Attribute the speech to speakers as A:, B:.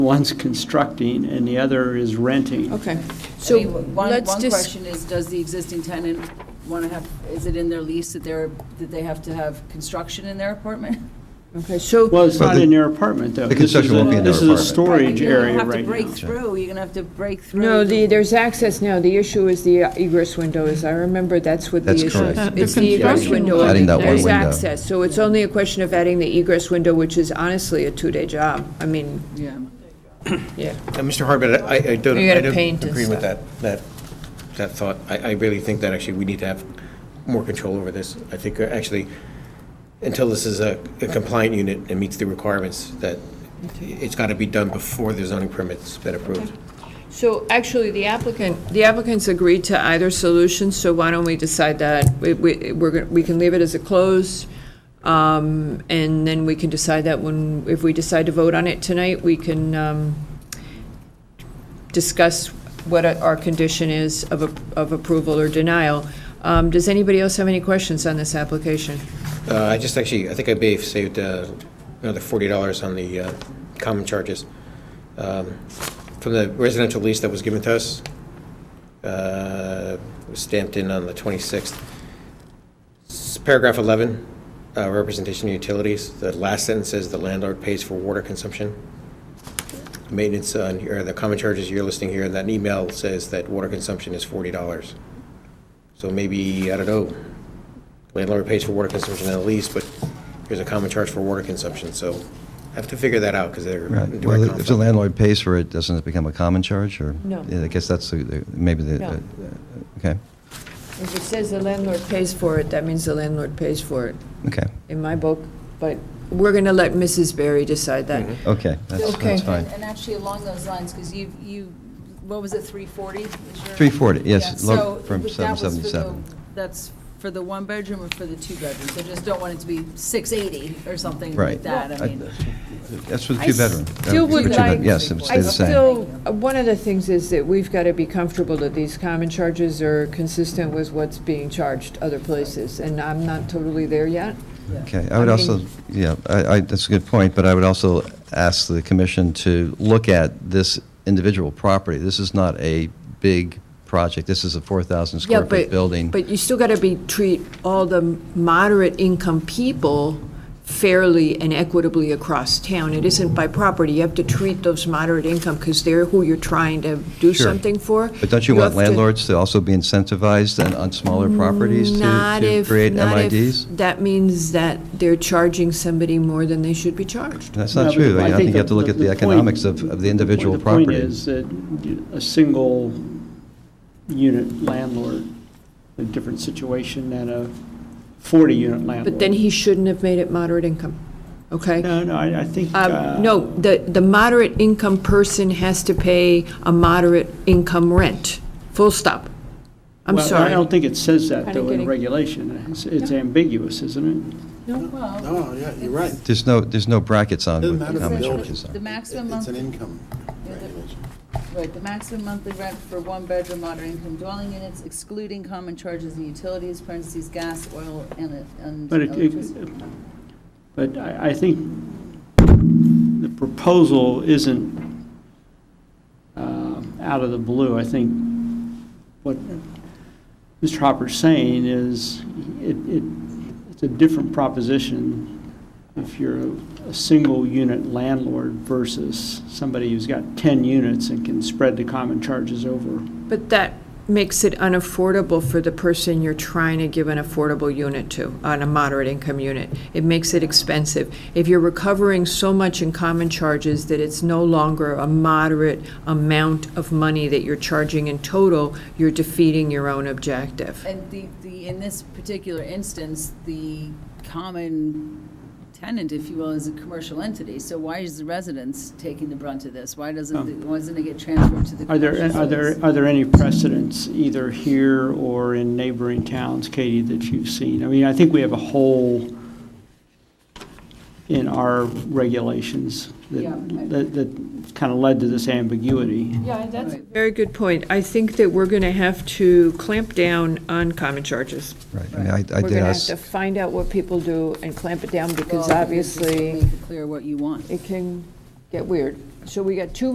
A: One's constructing and the other is renting.
B: Okay,
C: I
B: so
C: mean, one,
B: let's
C: one
B: just,
C: question is, does the existing tenant want to have, is it in their lease that they're, that they have to have construction in their apartment?
B: okay, so,
A: Well, it's
D: Well,
A: not
D: the-
A: in their apartment, though.
D: the
A: This is
D: construction
A: a-
D: won't be in their
A: This is a
D: apartment.
A: storage
C: You're gonna
A: area right
C: have to
A: now.
C: break through, you're going to have to break through.
B: no, the,
C: to-
B: there's access now, the issue is the egress window is, I remember that's what the
D: That's
B: issue is.
D: correct. Uh,
B: It's
E: the
B: the egress
E: construction
B: window.
E: window.
D: Adding that one
B: There's
D: window.
B: access, so it's only a question of adding the egress window, which is honestly a two-day job, I mean,
C: Yeah.
B: yeah.
F: Uh, Mr. Harbit, I- I, I don't,
B: You gotta
F: I don't
B: paint and
F: agree with
B: stuff.
F: that, that, that thought. I, I really think that actually we need to have more control over this. I think uh, actually, until this is a a compliant unit and meets the requirements, that it's got to be done before the zoning permit's been approved.
B: So actually, the applicant, the applicants agreed to either solution, so why don't we decide that? We, we, we're, gonna- we can leave it as a close, um, and then we can decide that when, if we decide to vote on it tonight, we can, um, discuss what our our condition is of, a- of approval or denial. Um, does anybody else have any questions on this application?
F: Uh, I just actually, I think I may have saved uh, another forty dollars on the uh, common charges. Um, From the residential lease that was given to us, uh, was stamped in on the twenty-sixth. Paragraph eleven, uh, representation of utilities, the last sentence says the landlord pays for water consumption. Maintenance on, or the common charges you're listing here, and that email says that water consumption is forty dollars. So maybe, I don't know, landlord pays for water consumption in the lease, but here's a common charge for water consumption, so I have to figure that out, because they're
D: Right.
F: in direct
D: Well, if the
F: conflict.
D: landlord pays for it, doesn't it become a common charge, or?
B: No.
D: Yeah, I guess that's the- the- maybe the,
B: No.
D: uh, okay,
B: If it says the landlord pays for it, that means the landlord pays for it,
D: okay,
B: in my book, but we're gonna let Mrs. Berry decide that.
D: okay, that's
B: Okay.
D: that's fine.
C: And and actually, along those lines, because you, you, what was it, 340? is your-
D: 340, yes,
C: Yeah,
D: lo-
C: so that
D: from
C: was for the-
D: 777.
C: That's for the one bedroom or for the two bedrooms? I just don't want it to be 680 or something
D: Right.
C: like that, I mean.
D: That's for the
B: I
D: two-bedroom. uh,
B: still
D: for
B: would
D: two-bed-
B: like-
D: Yes, it would
B: I
D: stay the same.
B: still, one of the things is that we've got to be comfortable that these common charges are consistent with what's being charged other places, and I'm not totally there yet.
D: Okay, I would
B: I
D: also,
B: mean-
D: yeah, I, I, that's a good point, but I would also ask the commission to look at this individual property. This is not a big project. This is a 4,000 square foot building.
B: But you still got to be, treat all the moderate income people fairly and equitably across town. It isn't by property, you have to treat those moderate income, because they're who you're trying to do
D: Sure.
B: something for.
D: But don't you want
B: have to-
D: landlords to also be incentivized and on smaller properties to-
B: Not
D: to
B: if-
D: create
B: not if
D: MIDs?
B: That means that they're charging somebody more than they should be charged.
D: That's
A: No, but
D: not true. I think you
A: the-
D: have to look at the
A: point-
D: economics of of the individual
A: The
D: property.
A: point is that a single unit landlord, a different situation than a 40-unit landlord.
B: But then he shouldn't have made it moderate income, okay?
A: No, no, I I think. uh,
B: Um, No, the, the moderate income person has to pay a moderate income rent, full stop. I'm
A: well, I
B: sorry.
A: don't think it says that,
B: I
A: though,
B: didn't
A: in
B: get it.
A: regulation. It's- It's ambiguous, isn't it?
C: Well,
G: Oh, yeah, you're right.
D: There's no, there's no brackets on
G: Doesn't
D: what the
G: matter
D: common
G: if it's-
D: charges are.
C: the maximum
G: It's an
C: monthly
G: income regulation.
C: Right, the maximum monthly rent for one-bedroom moderate income dwelling units excluding common charges and utilities, parentheses, gas, oil, and and
A: But it-
C: electricity.
A: it, but I, I think the proposal isn't uh, out of the blue. I think what Mr. Hopper's saying is it, it, it's a different proposition if you're a, a single-unit landlord versus somebody who's got 10 units and can spread the common charges over.
B: But that makes it unaffordable for the person you're trying to give an affordable unit to, on a moderate income unit. It makes it expensive. If you're recovering so much in common charges that it's no longer a moderate amount of money that you're charging in total, you're defeating your own objective.
C: And the, the, in this particular instance, the common tenant, if you will, is a commercial entity, so why is the residence taking the brunt of this? Why doesn't, it- why doesn't it get transferred to the
A: Oh. Are
C: commercial?
A: there, are there,
C: space?
A: are there any precedents, either here or in neighboring towns, Katie, that you've seen? I mean, I think we have a hole in our regulations
C: Yeah.
A: that, that, that kind of led to this ambiguity.
B: Yeah, that's.
C: a
B: Very good point. I think that we're going to have to clamp down on common charges.
D: Right. I mean, I I
B: We're
D: did
B: going to have
D: ask,
B: to find out what people do and clamp it down because
C: Well, I think it's just
B: obviously
C: Make it clear what you want.
B: it can get weird. So we got two